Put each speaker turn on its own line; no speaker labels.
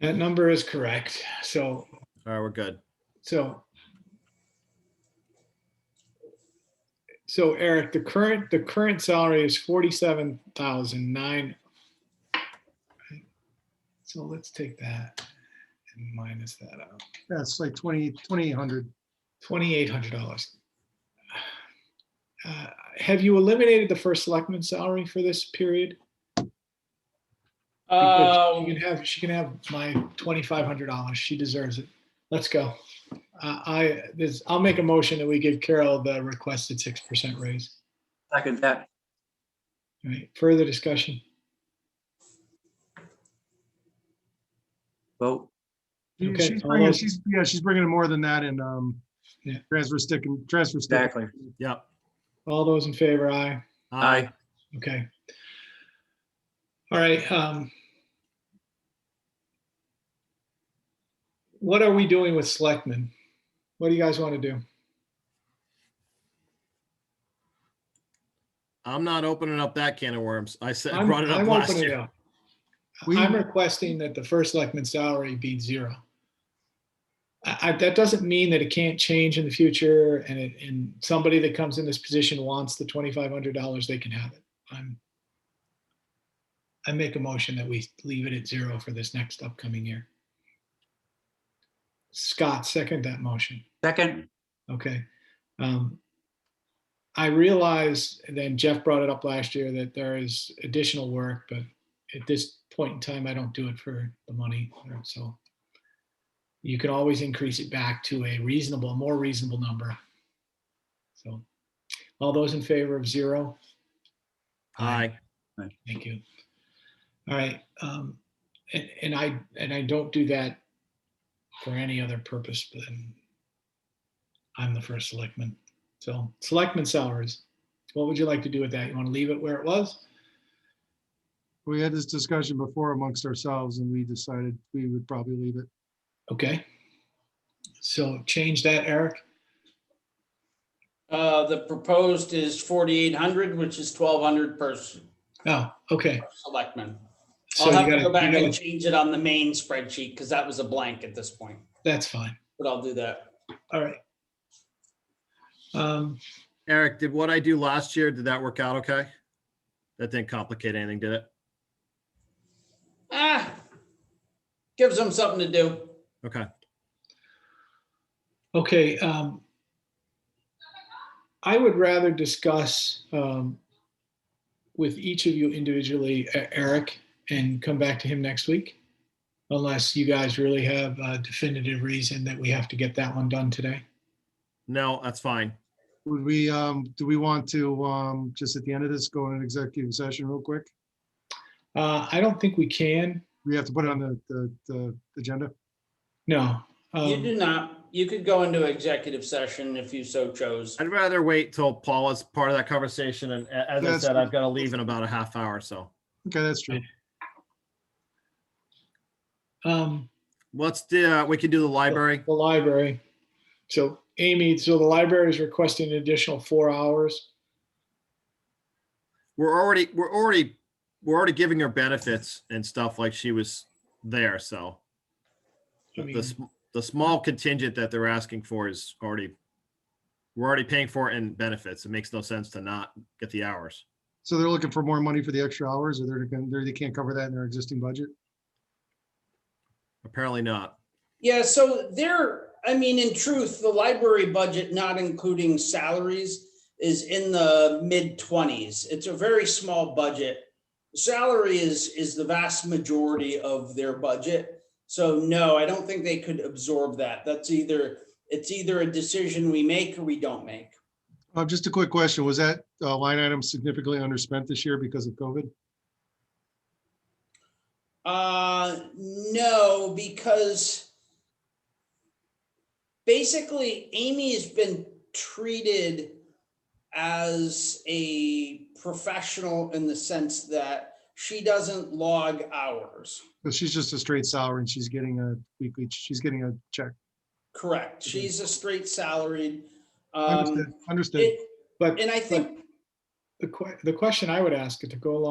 That number is correct. So,
All right, we're good.
so. So Eric, the current, the current salary is forty-seven thousand nine. So let's take that and minus that out.
That's like 20, 2,800.
Twenty-eight hundred dollars. Uh, Have you eliminated the first selectman's salary for this period? Because
Uh,
She Oh, can have, she can have my twenty-five hundred dollars. She deserves it. Let's go. Uh, I, this, I'll make a motion that we give Carol the requested six percent raise.
Second that.
All right, further discussion?
Vote.
She-
Okay,
She's
all
bringing,
those-
she's, yeah, she's bringing more than that in, um,
Yeah.
transfer stick and transfer stick.
Exactly.
Yep.
All those in favor, aye.
Aye.
Okay. All right, um. What are we doing with selectmen? What do you guys want to do?
I'm not opening up that can of worms. I said,
I'm-
brought it up
I'm
last
opening it
year.
up.
We-
I'm requesting that the first selectman salary be zero. I, I, that doesn't mean that it can't change in the future and it, and somebody that comes in this position wants the twenty-five hundred dollars, they can have it. I'm. I make a motion that we leave it at zero for this next upcoming year. Scott, second that motion.
Second,
Okay. Um, I realize, and then Jeff brought it up last year, that there is additional work, but at this point in time, I don't do it for the money, so. You can always increase it back to a reasonable, more reasonable number. So, all those in favor of zero?
Aye.
Thank you. All right, um, and, and I, and I don't do that for any other purpose than I'm the first selectman. So selectman salaries, what would you like to do with that? You want to leave it where it was?
We had this discussion before amongst ourselves and we decided we would probably leave it.
Okay. So change that, Eric.
uh, the proposed is forty-eight hundred, which is twelve hundred per s-
Oh, okay.
selectman.
So
I'll
you
have to
gotta-
go back
you gotta-
and change it on the main spreadsheet because that was a blank at this point,
That's fine.
but I'll do that.
All right. Um,
Eric, did what I do last year, did that work out okay? That didn't complicate anything, did it?
Ah, gives them something to do.
Okay.
Okay, um, I would rather discuss, um, with each of you individually, E- Eric, and come back to him next week. Unless you guys really have a definitive reason that we have to get that one done today.
No, that's fine.
Would we, um, do we want to, um, just at the end of this, go in an executive session real quick?
Uh, I don't think we can,
We have to put it on the, the, the agenda.
no.
You
Um,
do not, you could go into executive session if you so chose.
I'd rather wait till Paula's part of that conversation. And a- as I
That's
said,
good.
I've got to leave in about a half hour. So
Okay, that's true.
um,
let's do, uh, we can do the library.
The library. So Amy, so the library is requesting an additional four hours.
We're already, we're already, we're already giving her benefits and stuff like she was there. So
I
the,
mean,
sm- the small contingent that they're asking for is already, we're already paying for it in benefits. It makes no sense to not get the hours.
So they're looking for more money for the extra hours or they're, gonna- they're- they can't cover that in their existing budget?
Apparently not.
Yeah, so there, I mean, in truth, the library budget, not including salaries, is in the mid twenties. It's a very small budget. Salary is, is the vast majority of their budget. So no, I don't think they could absorb that. That's either, it's either a decision we make or we don't make.
Uh, just a quick question. Was that, uh, line item significantly underspent this year because of COVID?
Uh, no, because basically Amy has been treated as a professional in the sense that she doesn't log hours.
But she's just a straight salary and she's getting a weekly, she's getting a check.
Correct.
Mm-hmm.
She's a straight salaried.
Understood,
Um,
understood.
it,
But
and I think
the que- the question I would ask to go along